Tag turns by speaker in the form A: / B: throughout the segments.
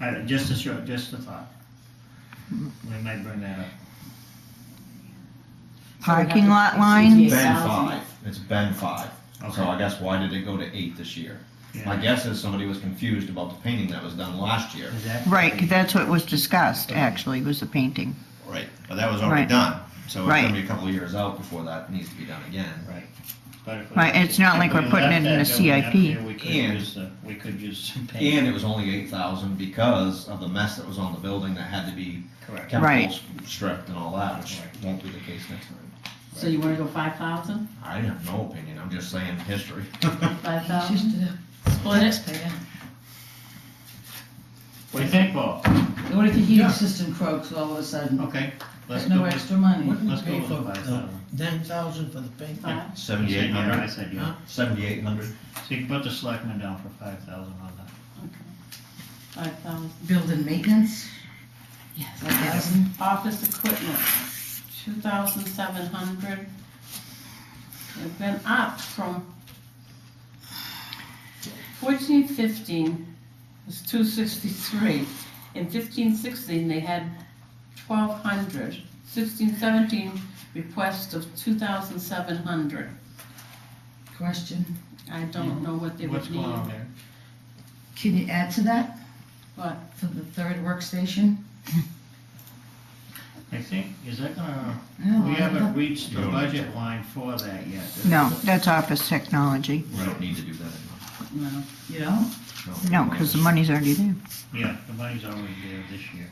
A: Uh, just a short, just a thought. We might bring that up.
B: Parking lot lines?
C: Yeah.
D: Ben
C: thousand.
D: five, it's Ben five, so I guess why did it go to eight this year? My
A: Yeah.
D: guess is somebody was confused about the painting that was done last year.
A: Is that-
B: Right, 'cause that's what was discussed, actually, was the painting.
D: Right. But that was
B: Right.
D: already done, so it's
B: Right.
D: gonna be a couple of years out before that needs to be done again.
A: Right. But if we-
B: Right, it's not like
A: if
B: we're
A: we
B: putting
A: left
B: it in
A: that
B: a
A: building up
B: CIP.
A: there, We could
D: And-
A: use, the- we could use some paint.
D: And it was only eight thousand because of the mess that was on the building that had to be
A: Correct.
B: Right.
D: chemicals stripped and all that, which
A: Right.
D: won't be the case next time.
C: So you wanna go five thousand?
D: I have no opinion, I'm just saying history.
C: Five
E: She's
C: thousand?
E: the
C: Split it?
E: taxpayer.
A: What do you think, Paul?
E: What if the
A: Yeah.
E: heating system croaks all of a sudden?
A: Okay, let's
E: There's
A: go
E: no
A: with,
E: extra money.
F: What did we
A: let's go
F: pay
A: with the
F: for,
A: five
F: uh,
A: thousand.
F: nine thousand for the paint?
C: Five?
D: Seventy-eight
A: I
D: hundred,
A: said, yeah.
D: seventy-eight hundred?
A: So you can put the selectmen down for five thousand on that.
C: Five thousand.
E: Building maintenance?
C: Yes.
E: A thousand?
C: Office equipment, two thousand seven hundred. They've been up from fourteen fifteen was two sixty-three. In fifteen sixteen, they had twelve hundred. Sixteen seventeen, request of two thousand seven hundred.
E: Question.
C: I don't know what they
A: Hmm. What's
C: would
A: going on
C: need.
A: there?
E: Can you add to that?
C: What?
E: For the third workstation?
A: I think, is that gonna,
E: No,
A: we
E: I don't
A: haven't
E: know.
A: reached the
D: No.
A: budget line for that yet. is
B: No,
A: it?
B: that's office technology.
D: We don't need to do that anymore.
C: No.
E: You don't?
B: No, because the money's already there.
A: Yeah, the money's already there this year.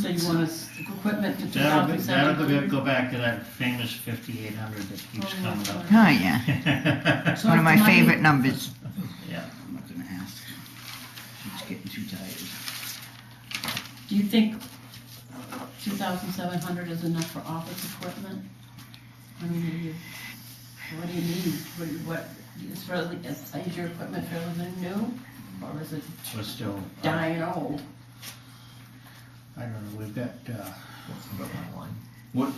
C: So you want us, equipment to two
A: That'll,
C: thousand
A: be-
C: seven
A: that'll be-
C: hundred?
A: go back to that famous fifty-eight hundred that keeps
C: Oh,
A: coming up.
B: Oh, yeah,
E: So
B: one of
E: if
B: my
E: the money-
B: favorite numbers.
G: I'm not gonna ask. She's getting too tired.
C: Do you think two thousand seven hundred is enough for office equipment? I mean, are you, what do you need? What, do you- what, is really, is, is your equipment fairly new? Or is it
A: We're still, I
C: dying old?
A: don't know, we've got, uh,
D: What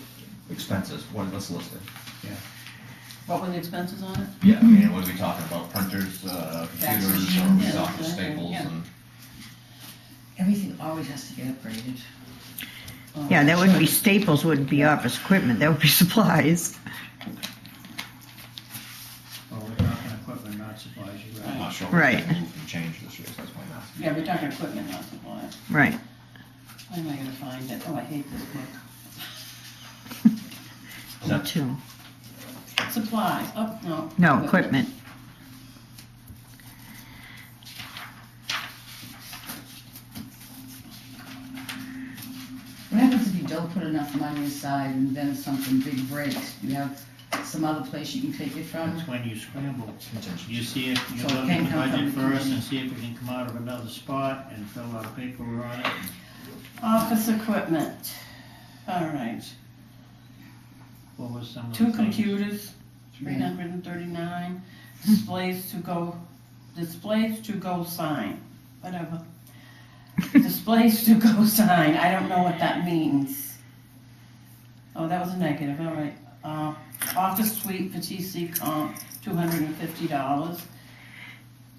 D: expenses, what, let's list it.
C: What were the expenses on it?
D: Yeah, I mean, what are we talking about, printers, uh,
C: Fax
D: computers, or are
C: machines,
D: we
C: yeah,
D: talking
C: yeah,
D: staples
C: yeah.
D: and?
E: Everything always has to get upgraded.
C: Oh,
B: Yeah, that wouldn't be staples, wouldn't be office equipment, that would be supplies.
A: well, we're talking equipment, not supplies, you're
D: I'm
A: right.
D: not sure what
B: Right.
D: they moved and changed this year, so that's why I'm
C: Oh,
D: asking.
C: Yeah, we're talking equipment, not supplies.
B: Right,
C: Why am I gonna find it? Oh, I hate this book.
B: me too.
C: Supplies, oh, no.
B: No, equipment.
E: What happens if you don't put enough money aside and then something big breaks? You have some other place you can take it
C: Mm-hmm.
E: from?
A: That's when you scramble.
D: Contingency.
A: You see if, you
E: So it
A: look at
E: can't
A: the
E: come from
A: budget
E: the
A: first and
E: community.
A: see if we can come out of another spot and fill out a paper on it.
C: Office equipment, all right.
A: What was some of the
C: Two
A: things?
C: computers, three hundred and thirty-nine, displays to go, displays to go sign, whatever. Displays to go sign, I don't know what that means. Oh, that was a negative, all right. Uh, office suite for TC comp, two hundred and fifty dollars.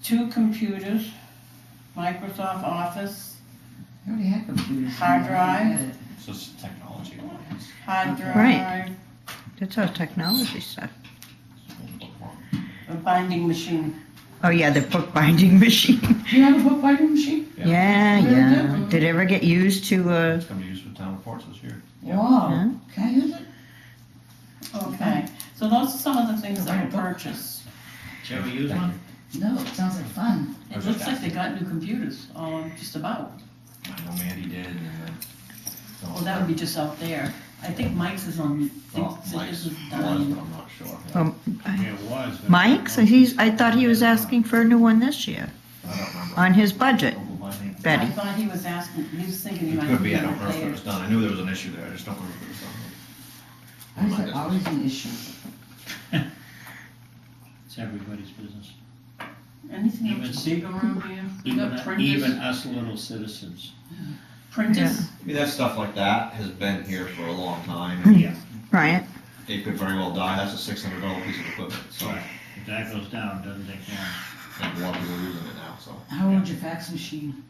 C: Two computers, Microsoft Office,
E: I already had computers.
C: Hard drive.
D: So it's technology. lines.
C: hard
E: Okay.
B: Right.
C: drive,
B: That's all technology stuff.
C: a binding machine.
B: Oh, yeah, the bookbinding machine.
E: Do you have a bookbinding machine?
B: Yeah,
E: Really
B: yeah.
E: good.
B: Did it ever get used to, uh,
D: It's gonna be used with town reports this year. Yeah.
B: Huh?
E: Wow. Can I use it?
C: Okay, so those are some of the things that were
E: Right.
C: purchased.
A: Shall we use
D: Thank
A: one?
E: No, it sounds like fun.
C: It looks like they got new computers, um, just about.
D: I know Mandy did, and then.
C: Well, that would be just out there. I think Mike's is on,
D: Oh,
C: thinks that
D: Mike's
C: this
D: was,
C: is
D: but
C: done.
D: I'm not sure.
B: um,
A: Yeah, it was. but-
B: Mike's? He's, I thought he was asking for a new one this year,
D: I don't remember.
B: on his budget,
D: Google my name.
C: I
B: Betty.
C: thought he was asking, he was thinking he
D: It
C: might.
D: could be, I
C: be
D: don't remember if it
C: there.
D: was done, I knew there was an issue there, I just don't remember if it was done.
E: Why is that always an issue?
A: It's everybody's business.
C: Anything
A: Even-
C: else to go around here? You
A: Even,
C: got
A: even
C: printers,
A: us little citizens.
C: printers?
D: I mean, that stuff like that has been here for a long time,
A: Yeah.
B: Right?
D: it could very well die, that's a six hundred dollar piece of equipment, so,
A: Right. If that goes down, it doesn't take long.
D: and a lot of people are using it now, so.
E: How old's your fax machine?